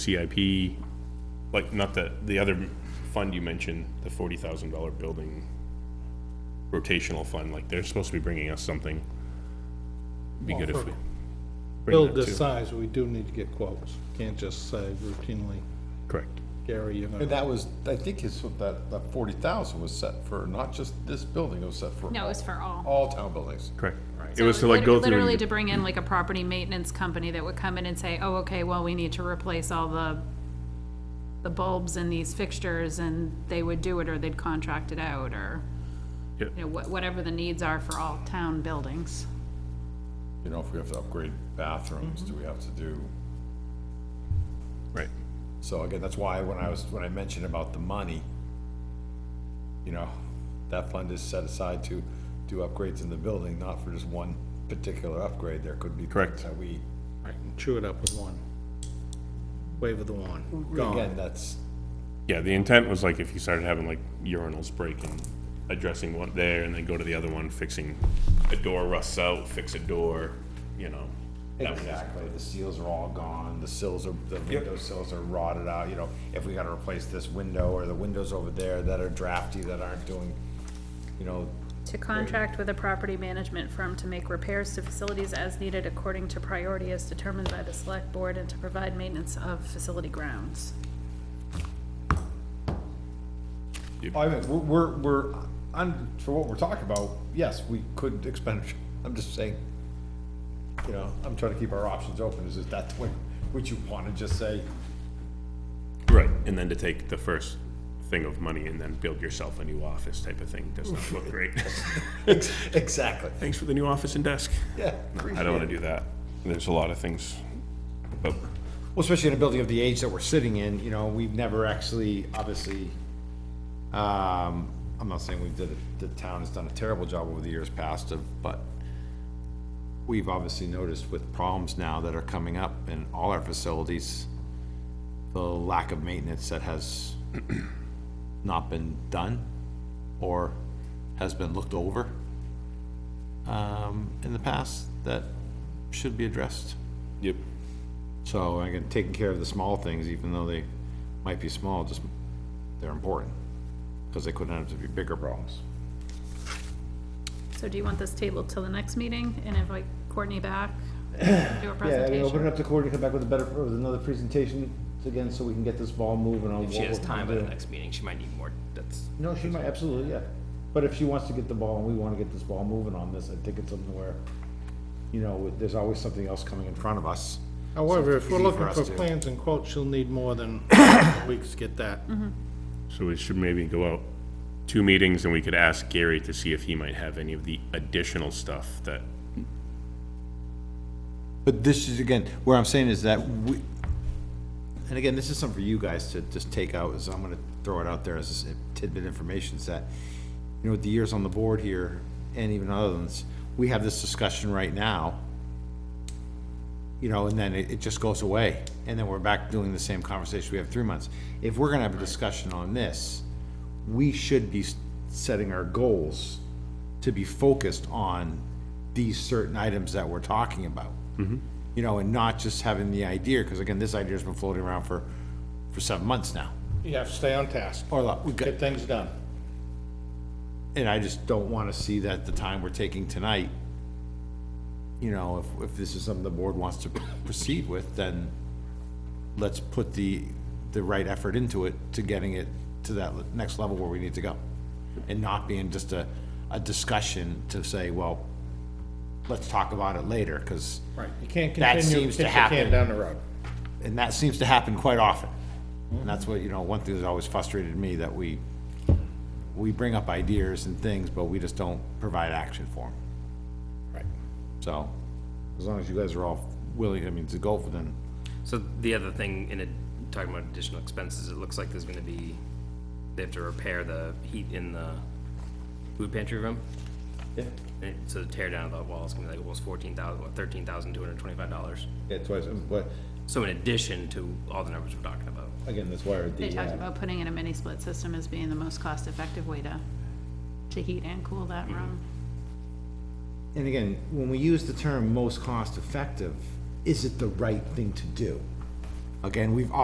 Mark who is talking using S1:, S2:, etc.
S1: CIP, like, not the, the other fund you mentioned, the forty thousand dollar building rotational fund, like, they're supposed to be bringing us something. Be good if we. bring
S2: build
S1: that
S2: this
S1: too.
S2: size, we do need to get quotes. Can't just say routinely,
S1: Correct.
S2: Gary, you're
S3: And
S2: gonna,
S3: that was, I think his, that, that forty thousand was set for not just this building, it was set for.
S4: No, it was for all.
S3: All town buildings.
S1: Correct. It
S4: So
S1: was to like
S4: lit-
S1: go through.
S4: Literally to
S1: and-
S4: bring in like a property maintenance company that would come in and say, oh, okay, well, we need to replace all the, the bulbs in these fixtures, and they would do it, or they'd contract it out, or,
S1: Yeah.
S4: you know, wha- whatever the needs are for all town buildings.
S3: You know, if we have to upgrade bathrooms, do we have to do?
S1: Right.
S3: So again, that's why when I was, when I mentioned about the money, you know, that fund is set aside to do upgrades in the building, not for just one particular upgrade. There could be. things
S1: Correct.
S3: That we,
S2: chew it up with one. Wave of the wand,
S3: again,
S2: gone.
S3: that's,
S1: Yeah, the intent was like if you started having like urinals breaking, addressing one there and then go to the other one, fixing a door rusts out, fix a door, you know. that would happen.
S3: Exactly, the seals are all gone, the sills are, the window sills are rotted out, you know, if we gotta replace this window or the windows over there that are drafty, that aren't doing, you know,
S4: To contract with a property management firm to make repairs to facilities as needed according to priority as determined by the select board, and to provide maintenance of facility grounds.
S3: I mean, we're- we're, we're, on, for what we're talking about, yes, we could expend, I'm just saying, you know, I'm trying to keep our options open, is that the way, would you wanna just say,
S1: Right, and then to take the first thing of money and then build yourself a new office type of thing does not look great.
S3: exactly,
S1: Thanks for the new office and desk.
S3: yeah.
S1: I don't wanna do that. There's a lot of things. But
S3: Well, especially in a building of the age that we're sitting in, you know, we've never actually, obviously, um, I'm not saying we've did, the town has done a terrible job over the years past of, but we've obviously noticed with problems now that are coming up in all our facilities, the lack of maintenance that has not been done or has been looked over um, in the past that should be addressed.
S1: Yep.
S3: So I get taking care of the small things, even though they might be small, just, they're important, because they could end up to be bigger problems.
S4: So do you want this table till the next meeting and invite Courtney back, do a
S5: Yeah, I mean, open it
S4: presentation?
S5: up to Cory to come back with a better, with another presentation, again, so we can get this ball moving on what
S6: If she
S5: we're
S6: has
S5: gonna
S6: time by the
S5: do.
S6: next meeting, she might need more, that's,
S5: No, she might, absolutely, yeah. But if she wants to get the ball, and we wanna get this ball moving on this, I think it's something where, you know, there's always something else coming in front of us.
S2: However, if we're
S5: Easy for
S2: looking
S5: us
S2: for
S5: to-
S2: plans and quotes, she'll need more than weeks to get that.
S1: So we should maybe go out two meetings and we could ask Gary to see if he might have any of the additional stuff that,
S3: But this is, again, where I'm saying is that we, and again, this is something for you guys to just take out, is I'm gonna throw it out there as a tidbit information, is that, you know, with the years on the board here, and even other ones, we have this discussion right now, you know, and then it, it just goes away, and then we're back doing the same conversation we have three months. If we're gonna have a discussion on this, we should be s- setting our goals to be focused on these certain items that we're talking about. You know, and not just having the idea, because again, this idea's been floating around for, for seven months now,
S2: You have to stay on task,
S3: or like, we got,
S2: get things done.
S3: and I just don't wanna see that the time we're taking tonight, you know, if, if this is something the board wants to proceed with, then let's put the, the right effort into it to getting it to that le- next level where we need to go. And not being just a, a discussion to say, well, let's talk about it later, cause,
S2: Right, you can't
S3: That
S2: continue
S3: seems
S2: kick
S3: to
S2: the can
S3: happen.
S2: down the road.
S3: and that seems to happen quite often. And that's what, you know, one thing that's always frustrated me, that we, we bring up ideas and things, but we just don't provide action for them.
S2: Right.
S3: So, as long as you guys are all willing, I mean, to go for them,
S6: so the other thing in it, talking about additional expenses, it looks like there's gonna be, they have to repair the heat in the food pantry room. Yeah. And so the tear down of the wall is gonna be like almost fourteen thousand, thirteen thousand two hundred twenty-five dollars.
S5: Yeah, twice, um, but,
S6: So in addition to all the numbers we're talking about.
S5: again, that's why the,
S4: They talked
S5: uh,
S4: about putting in a mini split system as being the most cost-effective way to, to heat and cool that
S5: Mm-hmm.
S4: room.
S5: and again, when we use the term most cost-effective, is it the right thing to do?
S3: again, we've